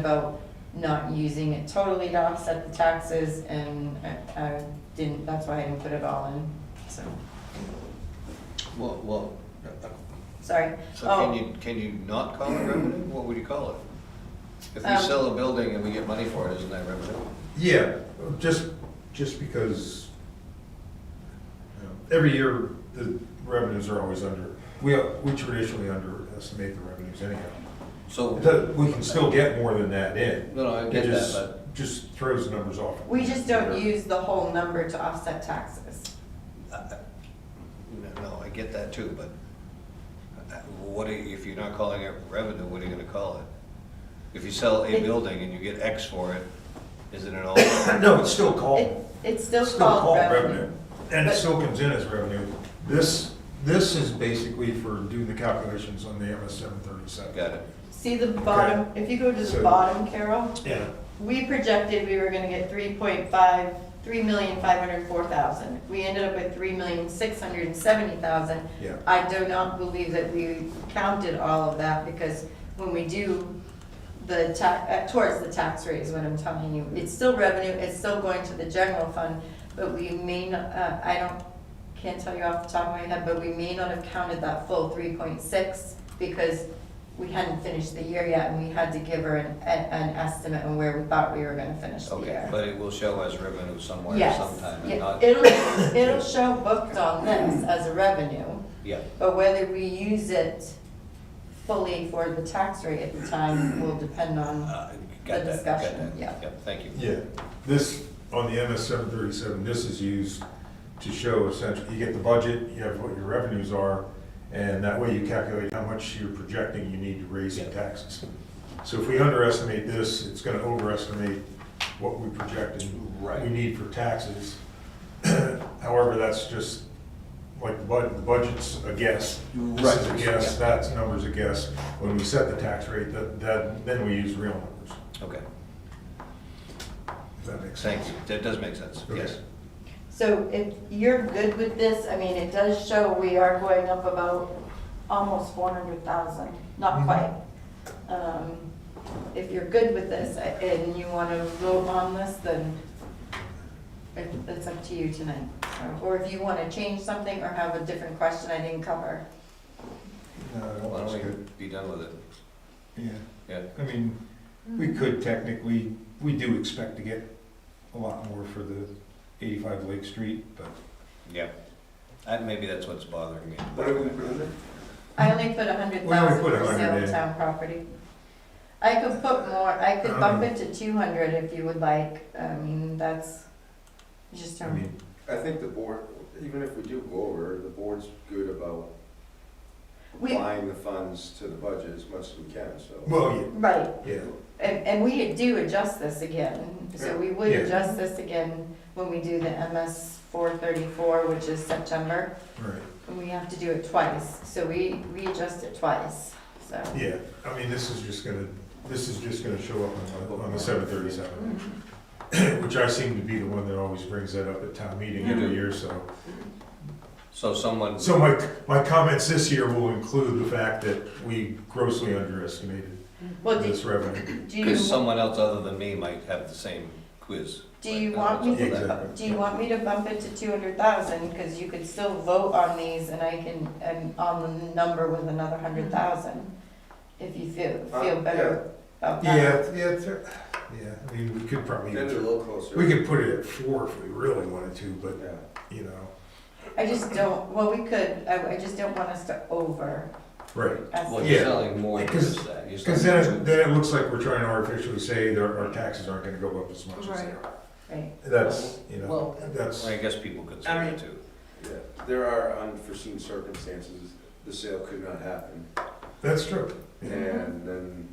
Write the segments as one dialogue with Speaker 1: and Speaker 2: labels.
Speaker 1: about not using it totally to offset the taxes, and I, I didn't, that's why I didn't put it all in, so,
Speaker 2: Well, well, uh,
Speaker 1: sorry.
Speaker 2: so can
Speaker 1: Oh,
Speaker 2: you, can you not call it revenue? What would you call it? If we
Speaker 1: Um,
Speaker 2: sell a building and we get money for it, isn't that revenue?
Speaker 3: Yeah, just, just because you know, every year, the revenues are always under, we, we traditionally underestimate the revenues anyhow.
Speaker 2: So,
Speaker 3: It does- We can still get more than that in.
Speaker 2: no, no, I
Speaker 3: It
Speaker 2: get that,
Speaker 3: just-
Speaker 2: but,
Speaker 3: Just throws the numbers off.
Speaker 1: We just don't use the whole number to offset taxes.
Speaker 2: uh, no, no, I get that too, but uh, what, are you- if you're not calling it revenue, what are you gonna call it? If you sell a
Speaker 1: It-
Speaker 2: building and you get X for it, isn't it all?
Speaker 3: No, it's still
Speaker 1: It,
Speaker 3: called,
Speaker 1: it's still
Speaker 3: it's still
Speaker 1: called revenue.
Speaker 3: And it
Speaker 1: But-
Speaker 3: still comes in as revenue. This, this is basically for doing the calculations on the MS seven thirty-seven.
Speaker 2: Got it.
Speaker 1: See the bottom, if you go to the
Speaker 3: So-
Speaker 1: bottom, Carol,
Speaker 3: Yeah.
Speaker 1: we projected we were gonna get three point five, three million five hundred four thousand. We ended up with three million six hundred and seventy thousand.
Speaker 3: Yeah.
Speaker 1: I do not believe that we counted all of that, because when we do the ta, uh, towards the tax rate is what I'm telling you. It's still revenue, it's still going to the general fund, but we may not, uh, I don't, can't tell you off the top of my head, but we may not have counted that full three point six, because we hadn't finished the year yet, and we had to give her an, an an estimate on where we thought we were gonna finish the
Speaker 2: Okay,
Speaker 1: year.
Speaker 2: but it will show as revenue somewhere,
Speaker 1: Yes,
Speaker 2: sometime,
Speaker 1: yeah.
Speaker 2: and not,
Speaker 1: It'll, it'll show booked on this as a revenue.
Speaker 2: yeah.
Speaker 1: But whether we use it fully for the tax rate at the time will depend on,
Speaker 2: Uh, Got
Speaker 1: The
Speaker 2: that, got
Speaker 1: discussion,
Speaker 2: that.
Speaker 1: yeah.
Speaker 2: Yep, thank you.
Speaker 3: Yeah, this, on the MS seven thirty-seven, this is used to show essentially, you get the budget, you have what your revenues are, and that way you calculate how much you're projecting you need to raise in
Speaker 2: Yeah.
Speaker 3: taxes. So if we underestimate this, it's gonna overestimate what we project and we
Speaker 2: Right.
Speaker 3: need for taxes. However, that's just, like, the bud, the budget's a guess. This is a
Speaker 2: Right.
Speaker 3: guess, that's numbers a guess. When we set the tax rate, that, that, then we use real numbers,
Speaker 2: Okay,
Speaker 3: if that makes sense.
Speaker 2: thank you. That does make sense,
Speaker 3: Okay.
Speaker 2: yes.
Speaker 1: so if you're good with this, I mean, it does show we are going up about almost four hundred thousand, not
Speaker 3: Mhm.
Speaker 1: quite. Um, If you're good with this a- and you want to vote on this, then it- it's up to you tonight. Or if you want to change something or have a different question I didn't cover.
Speaker 3: Uh,
Speaker 4: No, I
Speaker 2: Why
Speaker 4: don't
Speaker 2: don't
Speaker 4: think it's
Speaker 2: we be done with it?
Speaker 4: good.
Speaker 2: Yeah,
Speaker 4: Yeah, I mean, we could technically, we do expect to get a lot more for the eighty-five Lake Street, but.
Speaker 2: yeah. That, maybe that's what's bothering me.
Speaker 1: I only put a hundred
Speaker 3: We only
Speaker 1: thousand
Speaker 3: put
Speaker 1: for
Speaker 3: 100
Speaker 1: sale
Speaker 3: in.
Speaker 1: of town property. I could put more, I could
Speaker 3: Um.
Speaker 1: bump it to two hundred if you would like, I mean, that's, you just
Speaker 3: I
Speaker 1: don't.
Speaker 3: mean,
Speaker 5: I think the board, even if we do go over, the board's good about
Speaker 1: We,
Speaker 5: applying the funds to the budget as much as we can, so.
Speaker 3: Well,
Speaker 1: right,
Speaker 3: yeah, yeah,
Speaker 1: and, and we do adjust this again, so we would
Speaker 3: Yeah.
Speaker 1: adjust this again when we do the MS four thirty-four, which is September,
Speaker 3: right,
Speaker 1: and we have to do it twice, so we, we adjust it twice, so.
Speaker 3: yeah. I mean, this is just gonna, this is just gonna show up on the, on the seven thirty-seven, which I seem to be the one that always brings that up at town meeting
Speaker 2: You
Speaker 3: every
Speaker 2: do.
Speaker 3: year, so.
Speaker 2: So someone,
Speaker 3: So my, my comments this year will include the fact that we grossly underestimated
Speaker 1: Well, do,
Speaker 3: this revenue.
Speaker 1: do you,
Speaker 2: because someone else other than me might have the same quiz.
Speaker 1: Do you
Speaker 2: Like,
Speaker 1: want
Speaker 2: uh,
Speaker 1: me-
Speaker 3: Yeah, exactly.
Speaker 1: do you want me to bump it to two hundred thousand, cause you could still vote on these and I can, and on the number with another hundred thousand? If you feel, feel
Speaker 5: Uh,
Speaker 1: better about
Speaker 3: Yeah,
Speaker 1: that.
Speaker 3: yeah, it's- yeah, I mean, we could probably,
Speaker 5: Then it's a little closer.
Speaker 3: we could put it at four if we really wanted to, but,
Speaker 5: Yeah.
Speaker 3: you know,
Speaker 1: I just don't, well, we could, I, I just don't want us to over
Speaker 3: right.
Speaker 2: Well,
Speaker 1: estimate.
Speaker 2: you're
Speaker 3: Yeah.
Speaker 2: selling more than
Speaker 3: Because-
Speaker 2: just that. You're
Speaker 3: Because
Speaker 2: selling
Speaker 3: then, it-
Speaker 2: two.
Speaker 3: then it looks like we're trying to artificially say that our taxes aren't gonna go up as much as they are.
Speaker 1: Right,
Speaker 3: That's, you know,
Speaker 2: Well,
Speaker 3: that's,
Speaker 2: Well, I guess people could say that too.
Speaker 5: Yeah. There are unforeseen circumstances, the sale could not happen,
Speaker 3: that's true. Yeah,
Speaker 5: and then,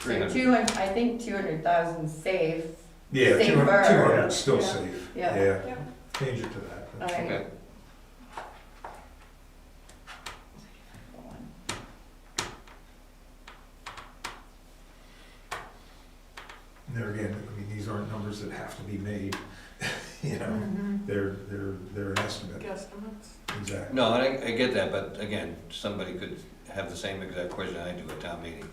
Speaker 1: so two hun, I think two hundred thousand safe,
Speaker 3: yeah, two
Speaker 1: Safer.
Speaker 3: hundred, two hundred, still
Speaker 1: Yeah.
Speaker 3: safe,
Speaker 1: Yeah.
Speaker 3: yeah. Change it to that.
Speaker 1: alright.
Speaker 2: Okay,
Speaker 3: And there again, I mean, these aren't numbers that have to be made, you know,
Speaker 1: Mm-hmm.
Speaker 3: they're, they're, they're an estimate,
Speaker 6: Guesstimates.
Speaker 3: exactly.
Speaker 2: no, and I, I get that, but again, somebody could have the same exact question I do at town meeting.